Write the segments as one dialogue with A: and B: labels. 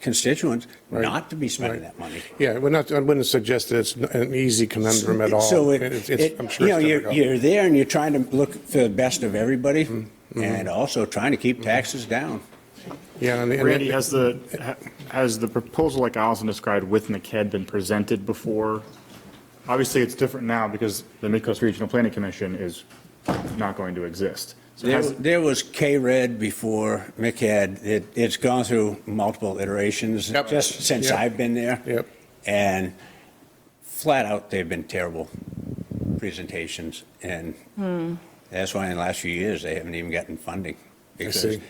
A: constituents not to be spending that money.
B: Yeah, we're not, I wouldn't suggest that it's an easy conundrum at all.
A: So it,
B: It's- it's-
A: it-
B: I'm sure
A: you know,
B: it's
A: you're,
B: difficult.
A: you're there and you're trying to look for the best of everybody
B: Mm-hmm.
A: and also trying to keep taxes down.
B: Yeah, and- and-
C: Randy, has the, ha- has the proposal like Allison described with NACAD been presented before? Obviously, it's different now because the Midcoast Regional Planning Commission is not going to exist. So
A: There,
C: has,
A: there was K-Red before Mick had, it, it's gone through multiple iterations
B: Yep.
A: just since
B: Yep.
A: I've been there.
B: Yep.
A: And flat out, they've been terrible presentations. And that's why in the last few years, they haven't even gotten funding. because
B: see.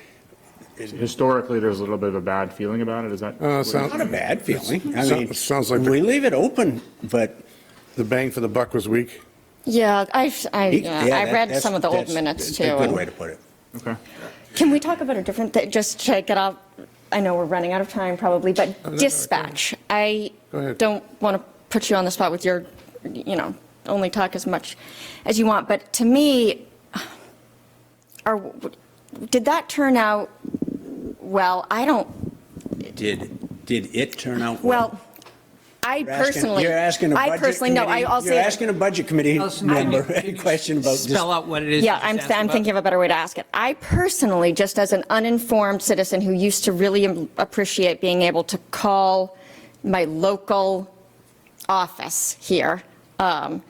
C: historically, there's a little bit of a bad feeling about it, is that?
B: Uh, so-
A: Not a bad feeling. I
B: So-
A: mean,
B: sounds like the-
A: we leave it open, but
B: the bang for the buck was weak.
D: Yeah, I've, I,
A: Yeah,
D: yeah, I
A: that-
D: read
A: that's-
D: some of the old
A: that's
D: minutes too.
A: A good
D: and-
A: way to put it.
C: Okay.
D: Can we talk about a different thing, just to get off, I know we're running out of time probably,
A: Oh,
B: no,
D: but
B: no,
D: dispatch. I
B: Go ahead.
D: don't want to put you on the spot with your, you know, only talk as much as you want, but to me, are, did that turn out well? I don't,
A: Did, did it turn out well?
D: well, I
A: You're asking-
D: personally.
A: You're asking a budget
D: I personally, no, I
A: committee-
D: also.
A: You're asking a budget committee
E: Allison, can
A: member a
E: you-
A: question about this.
E: Spell out what it is.
D: Yeah,
E: you
D: I'm,
E: just asked
D: I'm
E: about.
D: thinking of a better way to ask it. I personally, just as an uninformed citizen who used to really am- appreciate being able to call my local office here, um,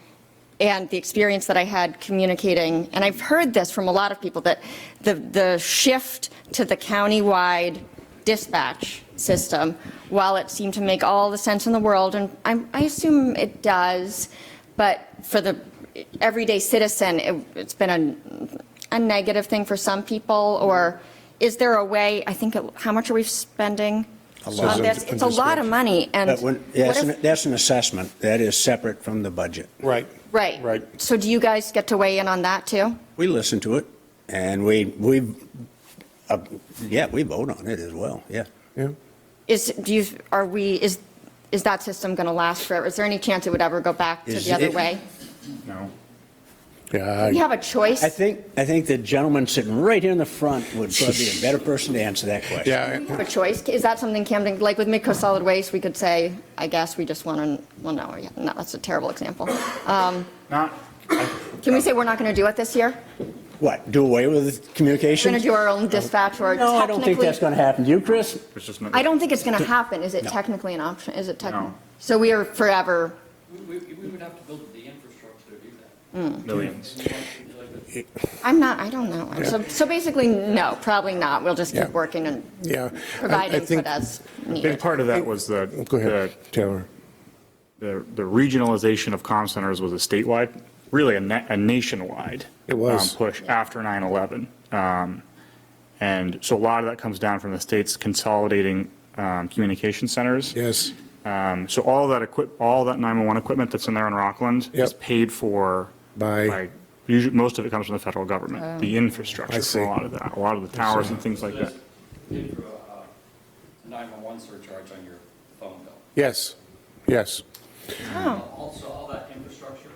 D: and the experience that I had communicating, and I've heard this from a lot of people, that the, the shift to the countywide dispatch system, while it seemed to make all the sense in the world, and I, I assume it does, but for the everyday citizen, it, it's been a, a negative thing for some people, or is there a way, I think, it- how much are we spending on this? It's a lot of money, and.
A: But when, yeah,
D: what
A: that's
D: if-
A: an- that's an assessment. That is separate from the budget.
B: Right.
D: Right.
B: Right.
D: So do you guys get to weigh in on that too?
A: We listen to it and we, we, uh, yeah, we vote on it as well, yeah.
B: Yeah.
D: Is, do you, are we, is, is that system going to last forever? Is there any chance it would ever go back to
A: Is
D: the other
A: it-
D: way?
C: No.
B: Yeah.
D: We
B: I-
D: have a choice.
A: I think, I think the gentleman sitting right here in the front would probably be a better person to answer that question.
B: Yeah.
D: We have a choice. Is that something Camden, like with Midco Solid Waste, we could say, I guess we just want to, well, no, yeah, no, that's a terrible example. Um,
C: Not,
D: Can we say we're not going to do it this year?
A: What, do away with communication?
D: We're going to do our own dispatch or
A: No, I don't think that's
D: technically?
A: going to happen. Do you, Chris?
C: it's just not.
D: I don't think it's going to happen. Is it
A: No.
D: technically an option? Is it technically?
C: No.
D: So we are forever,
F: We, we we would have to build the infrastructure to do that.
C: Millions.
D: I'm not, I don't know. So, so basically, no, probably not. We'll just
B: Yeah.
D: keep working and
B: Yeah. I- I
D: providing for
B: think-
D: that's
C: A big
D: needed.
C: part of that was the,
B: Go
C: the
B: ahead, Taylor.
C: the, the regionalization of comm centers was a statewide, really a, na- a nationwide.
B: It was.
C: um, Push after 9/11. Um, And so a lot of that comes down from the states consolidating um, communication centers.
B: Yes.
C: Um, So all that equip, all that 911 equipment that's in there in Rockland is
B: Yep.
C: paid for
B: By- Oh.
C: by, usually, most of it comes from the federal government, the infrastructure for
B: see.
C: a lot of that, a lot of the towers and things like that.
F: Just pay for uh, a nine-one-one surcharge on your phone bill.
B: Yes. Yes.
F: Also, all that infrastructure,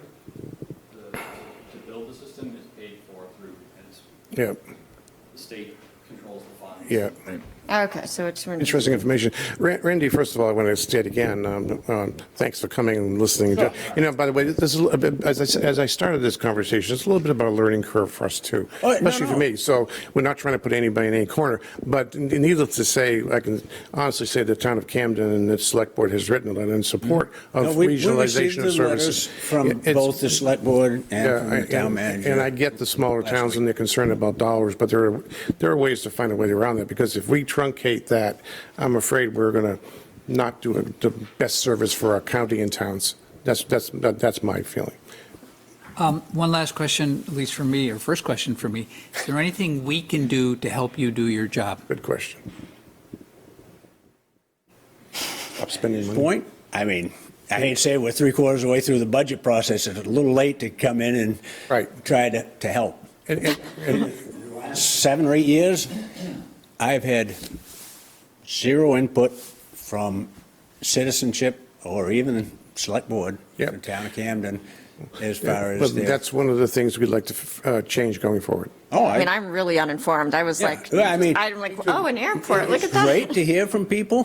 F: the, to build the system is paid for through, and it's,
B: Yeah.
F: the state controls the funds.
B: Yeah.
D: Okay, so it's.
B: Interesting information. Ra- Randy, first of all, I want to state again, um, um, thanks for coming and listening. You know, by the way, this is, a bit- as I, s- as I started this conversation, it's a little bit about a learning curve for us too,
A: Oh, no,
B: especially for
A: no.
B: me. So we're not trying to put anybody in any corner, but n- needless to say, I can honestly say the town of Camden and its select board has written a letter in support of
A: Mm-hmm. No, we- we received
B: regionalization
A: the
B: of
A: letters
B: services.
A: From
B: It's-
A: both the select board and from
B: yeah,
A: the town
B: and-
A: manager.
B: And I get the smaller
A: last
B: towns and their concern about dollars, but there are, there are ways to find a way around that, because if we truncate that, I'm afraid we're going to not do a- the best service for our county and towns. That's, that's, that- that's my feeling.
E: Um, One last question, at least for me, or first question for me. Is there anything we can do to help you do your job?
B: Good question. Stop spending money.
A: point. I mean, I hate to say we're three quarters of the way through the budget process. It's a little late to come in and
B: Right.
A: try to, to help.
B: And- and- and-
A: Seven or eight years, I've had zero input from citizenship or even select board
B: Yep.
A: for town of Camden as far as
B: But
A: their.
B: that's one of the things we'd like to uh, change going forward.
A: Oh,
D: I mean, I'm really uninformed. I was like,
A: Yeah, I mean-
D: I'm like, oh, an airport, look at that.
A: Great to hear from people.